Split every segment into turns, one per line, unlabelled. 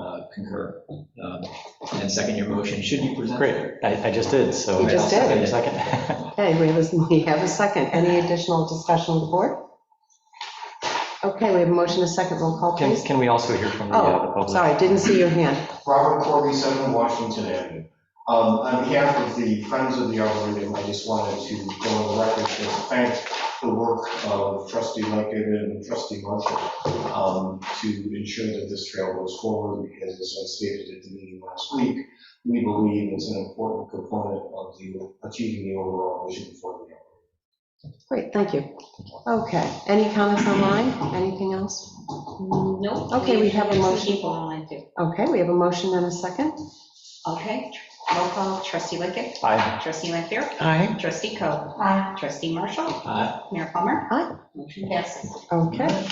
uh, concur. Um, And second, your motion should be presented.
Great, I, I just did, so.
You just did.
I'll second your Second.
Okay, we have, a- we have a second. Any additional discussion of the board? Okay, we have a motion, a second, roll call,
Can,
please.
can we also hear from the uh, the
Oh,
public?
sorry, didn't see your hand.
Robert Corby, 7 Washington Avenue. Um, On behalf of the Friends of the Arboretum, I just wanted to go on the record to thank the work of trustee Lincoln and trustee Marshall um, to ensure that this trail goes forward, because as I stated at the meeting last week, we believe it's an important component of the, achieving the overall vision for the Arboretum.
Great, thank you. Okay, any comments online? Anything else?
Nope.
Okay, we have a
Two
motion.
People online too.
Okay, we have a motion and a second.
Okay, roll call, trustee Lickett,
Aye.
trustee Lanfair,
Aye.
trustee Coe. Aye. Trustee Marshall,
Uh,
Aye.
Mayor Palmer.
Aye.
Motion passes.
Okay,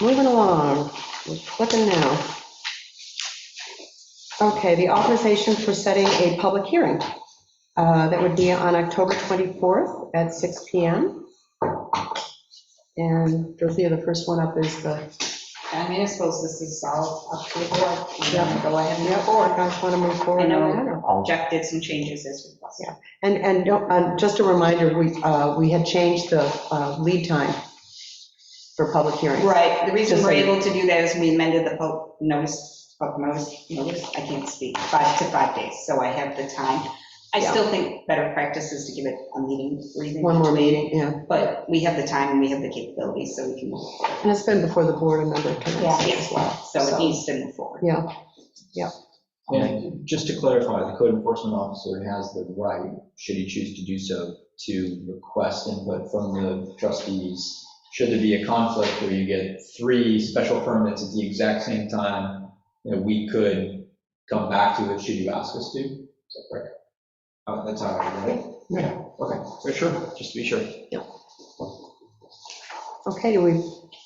moving along, we're flipping now. Okay, the authorization for setting a public hearing. uh, That would be on October 24th at 6 PM. And Dorothea, the first one up is the,
I mean, I suppose this is all up to the board. You wanna
Yeah.
Go ahead and
yeah,
move
or
forward.
if you guys want to move forward.
I know.
on that, or-
I'll-
Jack did some changes as requested.
Yeah. And, and don't- uh, just a reminder, we, uh, we had changed the uh, lead time for public hearings.
Right, the reason
Just
we're
like-
able to do that is we amended the po- notice, po- notice, notice, I can't speak, five to five days, so I have the time. I
Yeah.
still think better practice is to give it a meeting, reading.
One more meeting, yeah.
But we have the time and we have the capabilities, so we can move forward.
And it's been before the board a number of times
Yeah.
as well.
So it needs to move forward.
Yeah.
And just to clarify, the code enforcement officer has the right, should he choose to do so, to request input from the trustees. Should there be a conflict where you get three special permits at the exact same time, you know, we could come back to it should you ask us to. Is that correct?
Uh, That's all right, right?
Okay, so sure, just to be sure.
Okay, do we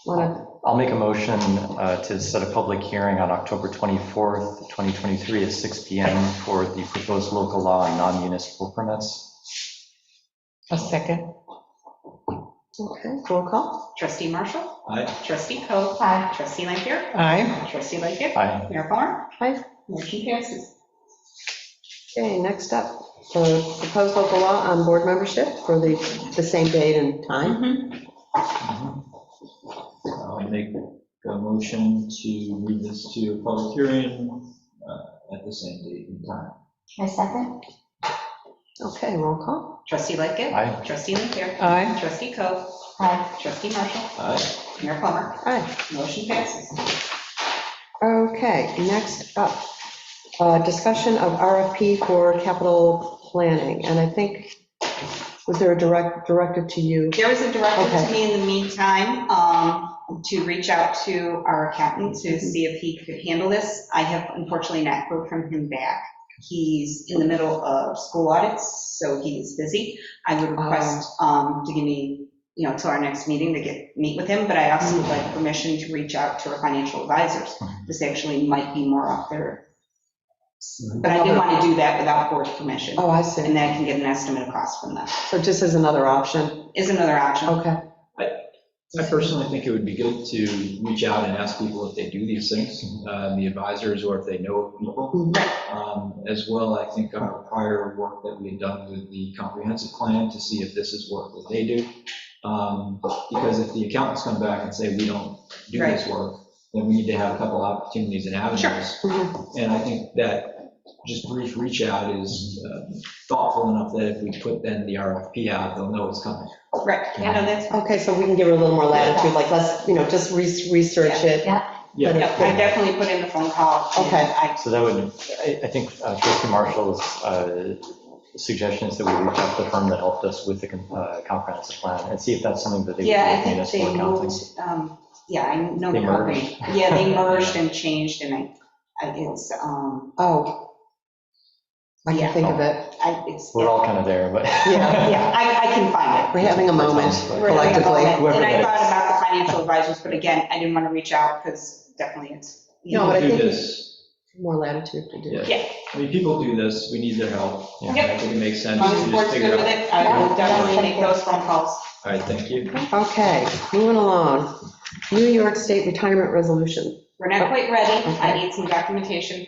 want to,
I'll make a motion uh, to set a public hearing on October 24th, 2023 at 6 PM for the proposed local law on non-municipal permits.
A second.
okay, roll call?
Trustee Marshall,
Aye.
trustee Coe,
Aye.
trustee Lampier,
Aye.
trustee Lightgev,
Aye.
Mayor Palmer.
Aye.
Motion passes.
Okay, next up, the proposed local law on board membership for the, the same date and time.
Mm-hmm.
I'll make a motion to move this to a public hearing uh, at the same date and time.
A second.
Okay, roll call?
Trustee Lightgev,
Aye.
trustee Lampier,
Aye.
trustee Coe,
Aye.
trustee Marshall,
Aye.
Mayor Palmer.
Aye.
Motion passes.
Okay, next up, uh, discussion of RFP for capital planning. And I think, was there a direct, directive to you?
There was a directive
Okay.
to me in the meantime um, to reach out to our accountant
Mm-hmm.
to see if he could handle this. I have unfortunately not heard from him back. He's in the middle of school audits, so he is busy. I would request
Oh.
um, to give me, you know, till our next meeting to get, meet with him, but I also would
Mm-hmm.
like permission to reach out to our financial advisors. This actually might be more up there. But I didn't want to do that without board permission,
Oh, I
and
see.
then I can get an estimate of cost from them.
So just as another option.
Is another option.
Okay,
I personally think it would be good to reach out and ask people if they do these things, uh, the advisors, or if they know of people. Um, As well, I think our prior work that we had done with the comprehensive plan to see if this is work that they do. Um, Because if the accountants come back and say, we don't do this work, then we need to have a couple opportunities and avenues.
Mhm.
And I think that just brief reach out is uh, thoughtful enough that if we put then the RFP out, they'll know it's coming.
Right, I know that's
okay, so we can give her a little more latitude, like let's, you know, just re- research it.
Yeah.
But
Yeah,
if-
I definitely put in the phone call. and
Okay.
I-
So that would, I I think uh, trustee Marshall's uh, suggestion is that we reach out to the firm that helped us with the com- uh, comprehensive plan and see if that's something that they would do
Yeah, I
with
think
municipal
they
accounting.
moved, um, yeah, I know the
They
company. Yeah, they merged and changed and I, I, it's, um,
Oh. I can think of it.
I, it's,
We're
yeah,
all kind of there, but.
Yeah,
I, I can find it.
We're having a moment
We're gonna go
collectively.
ahead.
Whoever
And I
that
thought
is.
about the financial advisors, but again, I didn't want to reach out because definitely it's, you
No,
know,
but I
Do
think-
this
More latitude to do it.
Yeah.
I mean, people do this, we need their help.
Yeah.
Yep.
I think it makes
as
sense
long as
to
the
just
board's
figure
good
it
with
out.
it, I will
Yeah.
definitely make those phone calls.
All right, thank you.
Okay, moving along. New York State Retirement Resolution.
We're not quite ready. I need some documentation